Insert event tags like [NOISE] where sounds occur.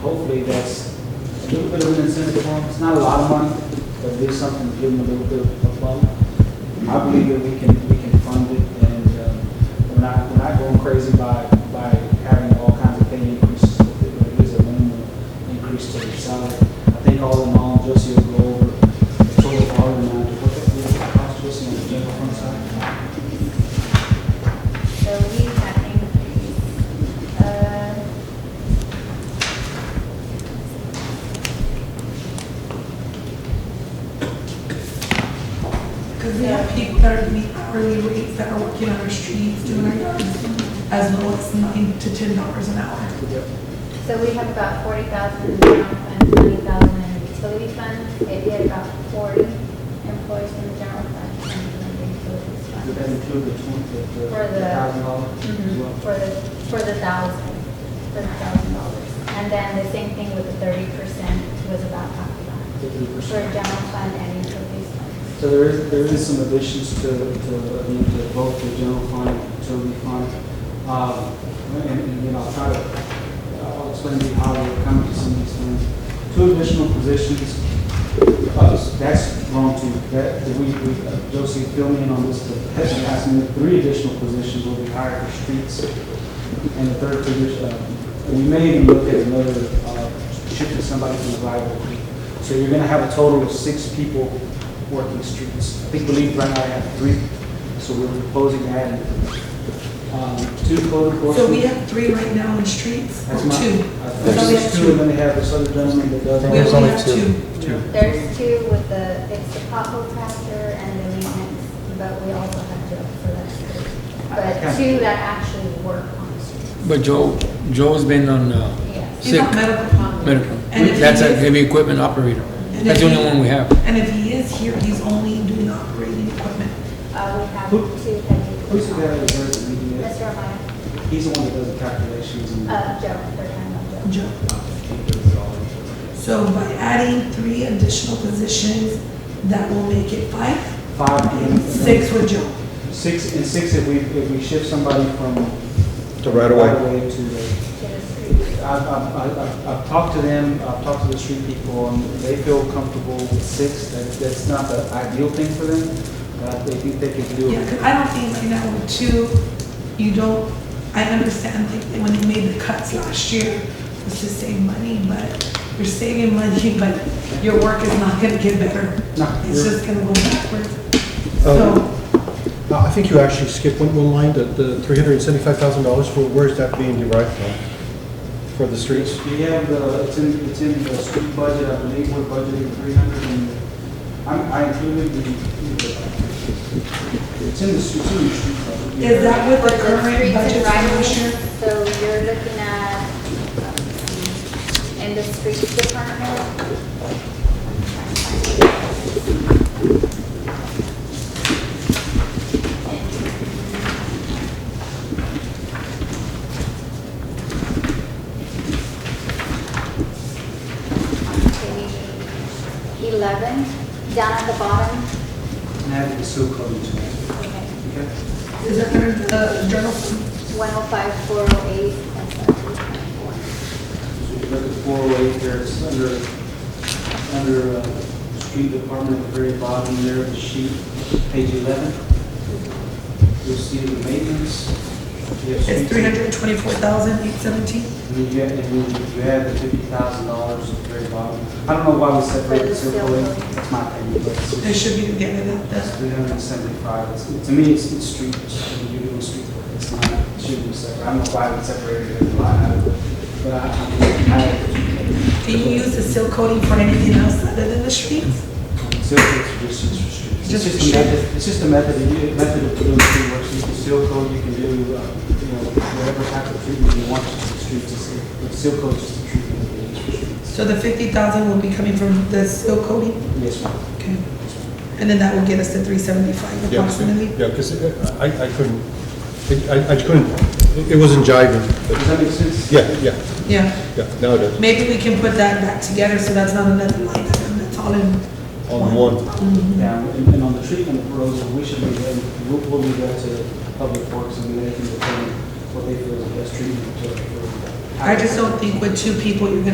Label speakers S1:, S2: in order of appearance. S1: hopefully that's a little bit of an incentive for them. It's not a lot of money, but there's something to give them a little bit of fun. I believe that we can, we can fund it and um, we're not, we're not going crazy by, by having all kinds of pay increases. But it is a minimal increase to the salary. I think all in all, Josie will go over the total dollar amount. What the what the cost Josie on the general fund side?
S2: So we have increased, uh,
S3: Because we have people that are meeting hourly rates that are working on our streets, doing our yards, as low as nine to ten dollars an hour.
S2: so we have about forty thousand in the general fund, twenty thousand in the utility fund. Maybe about forty employees in the general fund and in the utilities
S1: Would that
S2: fund.
S1: include the twenty, the
S2: For the-
S1: thousand dollars as well?
S2: Mhm, For the, for the thousand, for the thousand dollars. And then the same thing with the thirty percent was about half of that. For
S1: 50%.
S2: general fund and utilities fund.
S1: So there is, there is some additions to, to, I mean, to both the general fund and utility fund. Um, And, and, you know, I'll try to, I'll explain to you how we're coming to some of these things. Two additional positions, uh, that's wrong too, that, we, we, uh, Josie, fill me in on this, but that's an estimate. three additional positions will be hired for streets. And the third position, uh, we may even look at another, uh, shifting somebody from the library. So you're gonna have a total of six people working streets. I think, believe right now I have three, so we're proposing adding, um, two code enforcement.
S3: So we have three right now in streets, or
S1: That's my-
S3: two.
S1: I think
S3: No, we have
S1: it's two, and
S3: two.
S1: then they have this other gentleman that does. all
S3: We
S4: There's
S3: only
S4: only
S3: have
S4: two.
S3: two.
S1: Two.
S2: There's two with the, it's the pothole patcher and the maintenance, but we also have Joe for that. too. But two that actually work on the street.
S4: But Joe, Joe's been on uh,
S2: Yes.
S3: He's
S4: sick
S3: not medical problem.
S4: medical.
S3: And if
S4: That's
S3: he
S4: a
S3: is-
S4: heavy equipment operator.
S3: And
S4: That's
S3: if
S4: the only
S3: he-
S4: one we have.
S3: And if he is here, he's only doing operating equipment.
S2: Uh, we have
S1: Who-
S2: two that we.
S1: Who's the guy that does the media?
S2: Mr. Amaya,
S1: He's the one that does the calculations and.
S2: uh, Joe, they're talking about Joe.
S3: Joe. So by adding three additional positions, that will make it five,
S1: Five.
S3: and six with Joe.
S1: Six, and six if we, if we shift somebody from.
S5: To right away.
S1: to the,
S2: To the street.
S1: I've, I've, I've- I've, I've talked to them, I've talked to the street people, and they feel comfortable with six, that, that's not the ideal thing for them, but they think they can do
S3: Yeah,
S1: it.
S3: because I don't think right now with two, you don't, I understand like when they made the cuts last year, it was to save money, but you're saving money, [LAUGHS] but your work is not gonna get better.
S1: No,
S3: It's
S1: you're- Oh.
S3: just gonna go backwards.
S5: Um,
S3: So,
S5: Uh, I think you actually skipped one, one line, the, the three hundred and seventy-five thousand dollars, for, where is that being derived from? For the streets?
S1: We have the, it's in, it's in the street budget, I believe we're budgeting three hundred and, I'm, I included the, it's in the, street- it's in the street budget.
S3: is that with the current
S2: streets and
S3: budget
S2: right of
S3: last year?
S2: ways, So you're looking at, um, in the streets department. Page Eleven, down at the bottom.
S1: And having the sewer code into it.
S2: Okay.
S1: Okay?
S3: Is that under the journal?
S2: One oh five, four oh eight, and seventeen twenty-four.
S1: So if you look at four oh eight there, it's under, under uh, street department at the very bottom there of the sheet, page eleven. You'll see the maintenance. You have
S3: It's
S1: street-
S3: three hundred and twenty-four thousand, eight seventeen?
S1: And then you have, and then you add the fifty thousand dollars at the very bottom. I don't know why we separated it so clearly, that's my opinion, but it's-
S3: They should be together, that-
S1: that's
S3: that's,
S1: three hundred and seventy-five. It's, to me, it's, it's street, I mean, you're doing street work, it's not, it shouldn't be separate. I don't know why we separated it, in the line item, but I, I mean, I.
S3: do you use the seal coating for anything else other than the streets?
S1: Seal coats are just used for street. It's just
S3: Just for
S1: a
S3: street.
S1: method, it's just a method, of u- method of doing street work. So You can seal coat, you can do, uh, you know, whatever type of treatment you want to the streets. It's- But seal coat is just a treatment that they use for streets.
S3: So the fifty thousand will be coming from the seal coating?
S1: Yes, ma'am.
S3: Okay. And then that will get us to three seventy-five
S5: Yeah, 'cause-
S3: approximately?
S5: Yeah, because I, I couldn't, I- I, I couldn't, it- it wasn't jiving,
S1: Does
S5: but,
S1: that make sense?
S5: yeah, yeah,
S3: Yeah,
S5: yeah, now it is.
S3: maybe we can put that back together, so that's not another line item, that's all in.
S5: On one.
S3: Mhm.
S1: Yeah, and and on the treatment proposal, we should be, ready- we'll, we'll be there to public works and they can determine what they feel is the best treatment. to- for-
S3: I just don't think with two people, you're gonna